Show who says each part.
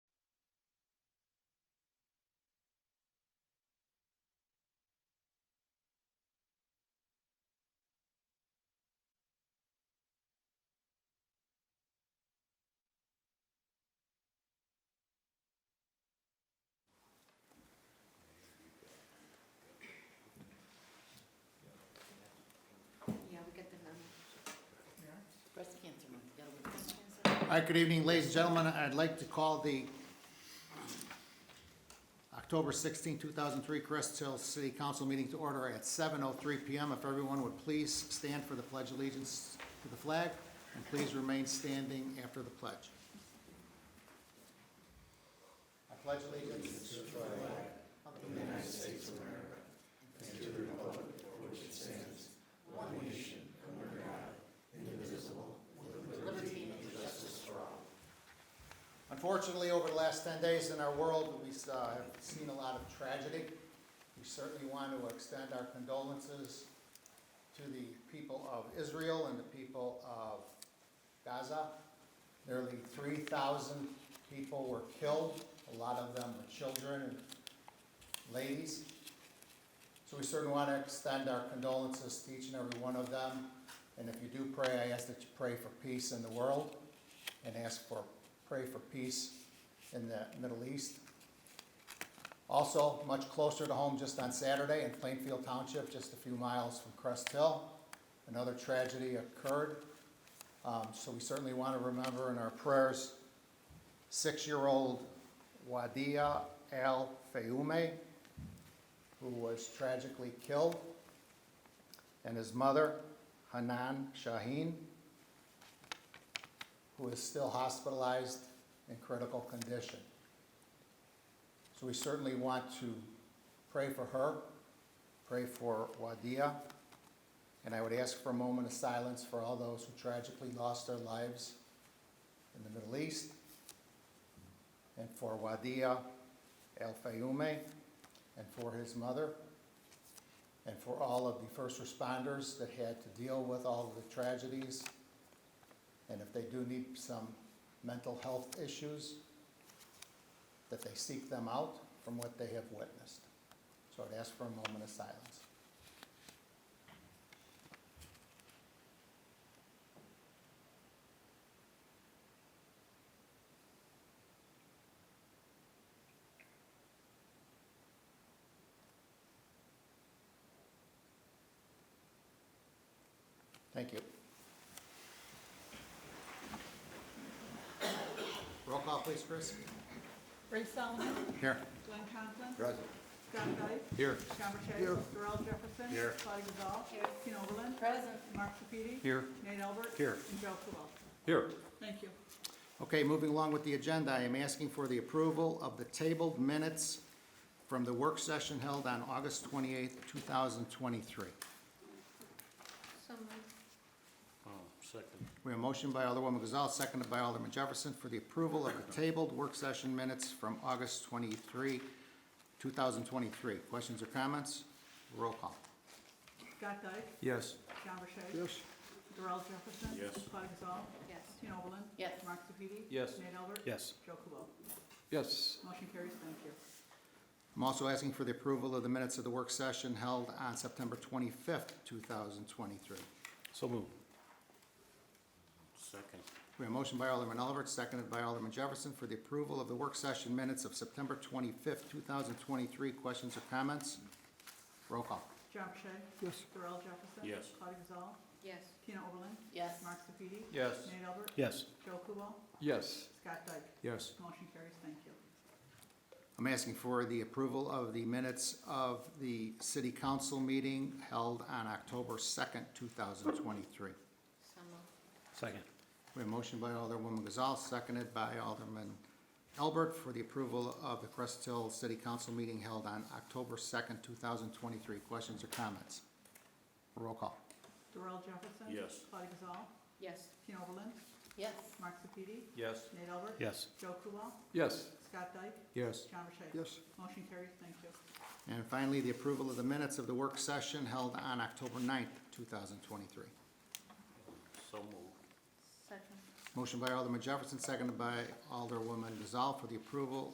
Speaker 1: All right, good evening, ladies and gentlemen. I'd like to call the October 16, 2003 Crest Hill City Council meeting to order at 7:03 PM. If everyone would please stand for the pledge allegiance to the flag, and please remain standing after the pledge. I pledge allegiance to the flag Unfortunately, over the last 10 days in our world, we uh, have seen a lot of tragedy. We certainly want to extend our condolences to the people of Israel and the people of Gaza. Nearly 3,000 people were killed, a lot of them were children and ladies. So we certainly want to extend our condolences to each and every one of them. And if you do pray, I ask that you pray for peace in the world and ask for, pray for peace in the Middle East. Also, much closer to home, just on Saturday in Plainfield Township, just a few miles from Crest Hill, another tragedy occurred. Um, so we certainly want to remember in our prayers, six-year-old Wadia Al Fayoume, who was tragically killed, and his mother, Hanan Shaheen, who is still hospitalized in critical condition. So we certainly want to pray for her, pray for Wadia, and I would ask for a moment of silence for all those who tragically lost their lives in the Middle East, and for Wadia El Fayoume, and for his mother, and for all of the first responders that had to deal with all of the tragedies and if they do need some mental health issues, that they seek them out from what they have witnessed. So I'd ask for a moment of silence. Thank you. Roll call, please, Chris.
Speaker 2: Ray Solomon.
Speaker 1: Here.
Speaker 2: Glenn Conklin.
Speaker 1: Present.
Speaker 2: Scott Dyke.
Speaker 1: Here.
Speaker 2: John Burchett. Darrell Jefferson.
Speaker 1: Here.
Speaker 2: Claudia Gazal. Tina Oberlin.
Speaker 3: Present.
Speaker 2: Mark Sepiti.
Speaker 1: Here.
Speaker 2: Nate Albert.
Speaker 1: Here.
Speaker 2: And Joe Coolwell.
Speaker 4: Here,
Speaker 2: Thank you.
Speaker 1: Okay, moving along with the agenda, I am asking for the approval of the tabled minutes from the work session held on August 28th, 2023.
Speaker 3: So moved.
Speaker 4: Um,
Speaker 1: We have a motion by Alderwoman Gazal, seconded by Alderman Jefferson for the approval of the tabled work session minutes from August 23, 2023. Questions or comments? Roll call.
Speaker 2: Scott Dyke.
Speaker 4: yes.
Speaker 2: John Burchett. Yes. Darrell Jefferson.
Speaker 4: Yes.
Speaker 2: Claudia Gazal.
Speaker 3: Yes.
Speaker 2: Tina Oberlin.
Speaker 3: Yes.
Speaker 2: Mark Sepiti.
Speaker 4: Yes.
Speaker 2: Nate Albert.
Speaker 4: Yes.
Speaker 2: Joe Coolwell.
Speaker 4: Yes.
Speaker 2: Motion carries. Thank you.
Speaker 1: I'm also asking for the approval of the minutes of the work session held on September 25th, 2023.
Speaker 4: So moved.
Speaker 1: We have a motion by Alderman Oliver, seconded by Alderman Jefferson for the approval of the work session minutes of September 25th, 2023. Questions or comments? Roll call.
Speaker 2: John Burchett. Yes. Darrell Jefferson.
Speaker 4: Yes.
Speaker 2: Claudia Gazal.
Speaker 3: Yes.
Speaker 2: Tina Oberlin.
Speaker 3: Yes.
Speaker 2: Mark Sepiti.
Speaker 4: Yes.
Speaker 2: Nate Albert.
Speaker 4: Yes.
Speaker 2: Joe Coolwell.
Speaker 4: Yes.
Speaker 2: Scott Dyke.
Speaker 4: Yes.
Speaker 2: Motion carries. Thank you.
Speaker 1: I'm asking for the approval of the minutes of the city council meeting held on October 2nd, 2023.
Speaker 3: So moved.
Speaker 4: Second.
Speaker 1: We have a motion by Alderwoman Gazal, seconded by Alderman Albert for the approval of the Crest Hill City Council meeting held on October 2nd, 2023. Questions or comments? Roll call.
Speaker 2: Darrell Jefferson.
Speaker 4: Yes.
Speaker 2: Claudia Gazal.
Speaker 3: Yes.
Speaker 2: Tina Oberlin.
Speaker 3: Yes.
Speaker 2: Mark Sepiti.
Speaker 4: Yes.
Speaker 2: Nate Albert.
Speaker 4: Yes.
Speaker 2: Joe Kubal.
Speaker 4: Yes.
Speaker 2: Scott Dyke.
Speaker 4: Yes.
Speaker 2: John Burchett.
Speaker 4: Yes.
Speaker 2: Motion carries. Thank you.
Speaker 1: And finally, the approval of the minutes of the work session held on October 9th, 2023.
Speaker 4: So moved.
Speaker 3: Second.
Speaker 1: Motion by Alderman Jefferson, seconded by Alderwoman Gazal for the approval